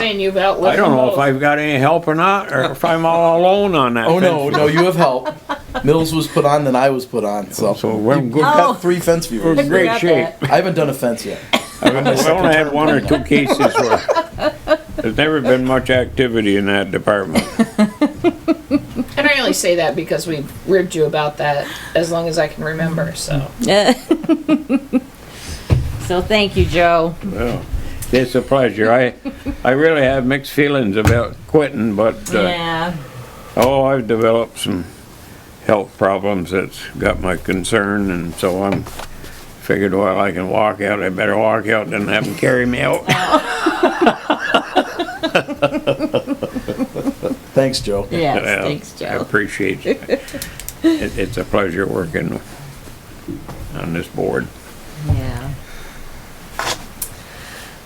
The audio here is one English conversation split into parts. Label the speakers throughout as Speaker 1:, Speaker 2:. Speaker 1: saying you've outlived
Speaker 2: I don't know if
Speaker 1: both.
Speaker 2: I've got any help or not, or if I'm all alone on that.
Speaker 3: Oh no,
Speaker 2: fence.
Speaker 3: no, you have help. Mills was put on, then I was put on. So,
Speaker 2: So we're in
Speaker 3: we've
Speaker 2: good,
Speaker 1: Oh.
Speaker 3: got three fence
Speaker 2: we're
Speaker 3: viewers.
Speaker 2: in
Speaker 1: forgot
Speaker 2: great shape.
Speaker 3: I haven't done a fence yet.
Speaker 2: I mean, We only had one or two cases where there's never been much activity in that department.
Speaker 1: And I only say that because we ribbed you about that as long as I can remember, so.
Speaker 4: So thank you, Joe.
Speaker 2: Well, It's a pleasure. I, I really have mixed feelings about quitting, but, uh,
Speaker 4: Yeah.
Speaker 2: oh, I've developed some health problems that's got my concern, and so I'm figured, well, I can walk out, I better walk out than have them carry me out.
Speaker 3: Thanks, Joe.
Speaker 4: Yes,
Speaker 2: Yeah,
Speaker 4: thanks,
Speaker 2: I
Speaker 4: Joe.
Speaker 2: appreciate it. It- It's a pleasure working on this board.
Speaker 4: Yeah.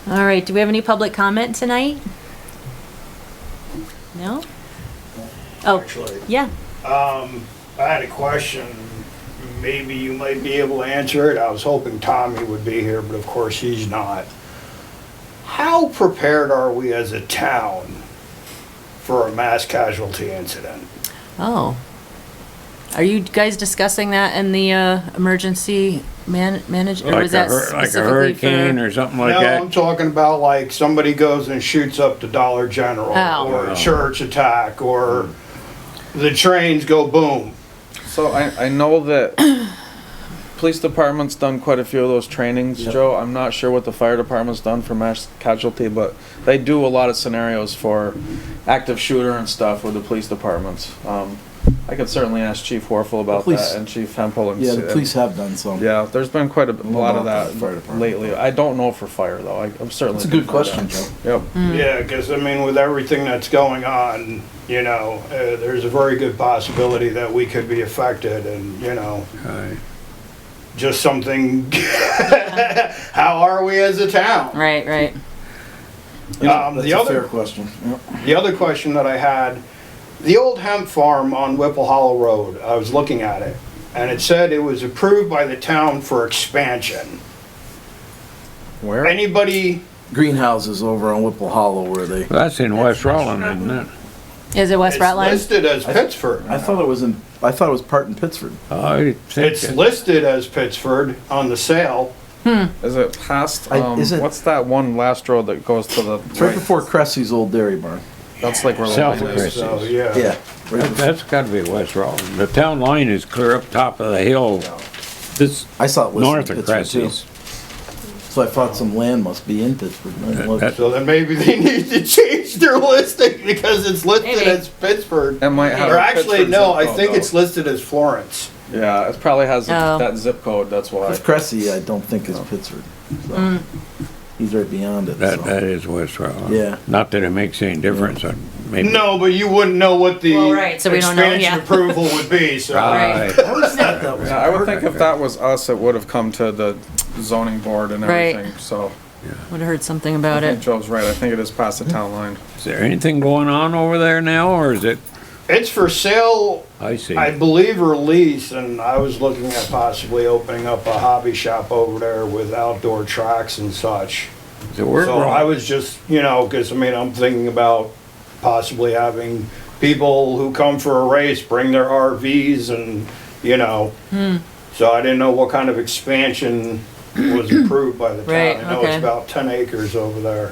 Speaker 4: All right, do we have any public comment tonight? No? Oh,
Speaker 5: actually.
Speaker 4: yeah.
Speaker 5: I had a question, maybe you might be able to answer it. I was hoping Tommy would be here, but of course he's not. How prepared are we as a town for a mass casualty incident?
Speaker 4: Oh. Are you guys discussing that in the uh, emergency man, manage, or
Speaker 2: Like
Speaker 4: was
Speaker 2: a
Speaker 4: that
Speaker 2: hur- Like a
Speaker 4: specifically
Speaker 2: hurricane
Speaker 4: for?
Speaker 2: or something like
Speaker 5: No, I'm
Speaker 2: that.
Speaker 5: talking about like somebody goes and shoots up the Dollar General
Speaker 4: Oh.
Speaker 5: or a church attack or
Speaker 2: Hmm.
Speaker 5: the trains go boom.
Speaker 6: So I, I know that police department's done quite a few of those trainings, Joe. I'm not sure what the fire department's done for mass casualty, but they do a lot of scenarios for active shooter and stuff with the police departments. Um, I could certainly ask Chief Warfel about
Speaker 3: Police-
Speaker 6: that and Chief Hempel and
Speaker 3: Yeah,
Speaker 6: see-
Speaker 3: the police have done some.
Speaker 6: Yeah, there's been quite a, b- a lot of
Speaker 3: about the
Speaker 6: that
Speaker 3: fire department.
Speaker 6: lately. I don't know for fire though. I, I'm certainly.
Speaker 3: That's a good question, Joe.
Speaker 6: Yep.
Speaker 3: Mm.
Speaker 5: Yeah, because I mean, with everything that's going on, you know, uh, there's a very good possibility that we could be affected and, you know,
Speaker 2: Aye.
Speaker 5: just something, how are we as a town?
Speaker 4: Right, right.
Speaker 3: Yeah,
Speaker 5: Um,
Speaker 3: that's
Speaker 5: the
Speaker 3: a
Speaker 5: other-
Speaker 3: fair question. Yep.
Speaker 5: The other question that I had, the old hemp farm on Whipple Hollow Road, I was looking at it, and it said it was approved by the town for expansion.
Speaker 6: Where?
Speaker 5: Anybody,
Speaker 3: Greenhouses over on Whipple Hollow where they.
Speaker 2: That's in West Rollin, isn't it?
Speaker 4: Is it West
Speaker 5: it's
Speaker 4: Rutland?
Speaker 5: listed as Pittsford.
Speaker 3: I thought it was in. I thought it was part in Pittsford.
Speaker 2: Oh, I think
Speaker 5: It's
Speaker 2: it-
Speaker 5: listed as Pittsford on the sale.
Speaker 6: Is it past,
Speaker 3: I-
Speaker 6: um,
Speaker 3: is it-
Speaker 6: what's that one last road that goes to the?
Speaker 3: It's right before Cressy's old dairy barn.
Speaker 6: That's like where.
Speaker 2: South
Speaker 6: Logan is.
Speaker 2: Chris.
Speaker 5: So, yeah.
Speaker 3: Yeah. Right
Speaker 2: That-
Speaker 3: before,
Speaker 2: That's gotta be West Rollin. The town line is clear up top of the hill, this
Speaker 3: I saw it was
Speaker 2: north
Speaker 3: in
Speaker 2: of
Speaker 3: Pittsford too.
Speaker 2: Cressy's.
Speaker 3: So I thought some land must be in Pittsford. and I looked.
Speaker 5: So then maybe they need to change their listing because it's listed
Speaker 4: Maybe.
Speaker 5: as Pittsburgh.
Speaker 6: It might have.
Speaker 5: Or
Speaker 6: a
Speaker 5: actually,
Speaker 6: Pittsburgh
Speaker 5: no,
Speaker 6: zip
Speaker 5: I
Speaker 6: code,
Speaker 5: think
Speaker 6: though.
Speaker 5: it's listed as Florence.
Speaker 6: Yeah, it probably has
Speaker 4: Oh.
Speaker 6: that zip code. That's why.
Speaker 3: If Cressy, I don't think is Pittsford. So. He's right beyond it.
Speaker 2: That,
Speaker 3: so.
Speaker 2: that is West Rollin.
Speaker 3: Yeah.
Speaker 2: Not that it makes any difference, I- maybe.
Speaker 5: No, but you wouldn't know what the
Speaker 4: Well, right, so we don't know,
Speaker 5: expansion
Speaker 4: yeah.
Speaker 5: approval would be, so.
Speaker 2: Aye.
Speaker 4: Right.
Speaker 3: I always thought that was.
Speaker 6: Yeah, I would think if that was us, it would have come to the zoning board and
Speaker 4: Right.
Speaker 6: everything. So
Speaker 4: Would've heard something
Speaker 6: I
Speaker 4: about
Speaker 6: think
Speaker 4: it.
Speaker 6: Joe's right. I think it is past the town line.
Speaker 2: Is there anything going on over there now, or is it,
Speaker 5: It's for sale,
Speaker 2: I see.
Speaker 5: I believe, or lease, and I was looking at possibly opening up a hobby shop over there with outdoor tracks and such.
Speaker 2: So we're
Speaker 5: So I
Speaker 2: wrong.
Speaker 5: was just, you know, because I mean, I'm thinking about possibly having people who come for a race bring their RVs and, you know.
Speaker 4: Hmm.
Speaker 5: So I didn't know what kind of expansion was approved by the
Speaker 4: Right,
Speaker 5: town. I know it's
Speaker 4: okay. Hmm.
Speaker 5: about ten acres over there.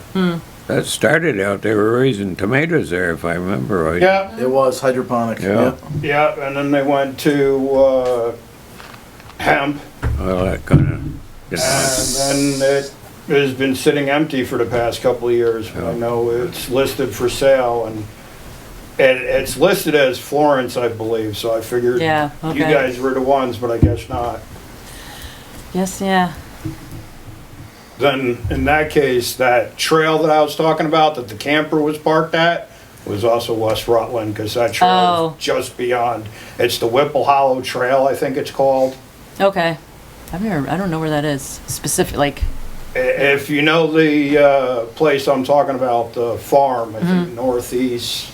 Speaker 2: That started out, they were raising tomatoes there, if I remember right.
Speaker 5: Yeah,
Speaker 3: It was hydroponic.
Speaker 2: Yeah.
Speaker 5: yeah, and then they went to uh, hemp,
Speaker 2: Well, that kind of,
Speaker 5: and then it has been sitting empty for the past couple of years. but I
Speaker 2: Yeah.
Speaker 5: know it's listed for sale, and it, it's listed as Florence, I believe. So I figured
Speaker 4: Yeah,
Speaker 5: you
Speaker 4: okay.
Speaker 5: guys were the ones, but I guess not.
Speaker 4: Yes, yeah.
Speaker 5: Then in that case, that trail that I was talking about that the camper was parked at was also West Rutland because that trail
Speaker 4: Oh.
Speaker 5: is just beyond. It's the Whipple Hollow Trail, I think it's called.
Speaker 4: Okay. I've never, I don't know where that is specific, like,
Speaker 5: I- If you know the uh, place I'm talking about, the farm, I think northeast,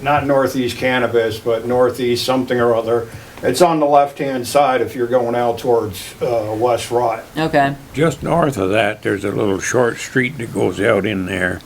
Speaker 5: not northeast cannabis, but northeast something or other. It's on the left-hand side if you're going out towards uh, West Rut.
Speaker 4: okay.
Speaker 2: just north of that, there's a little short street that goes out in there.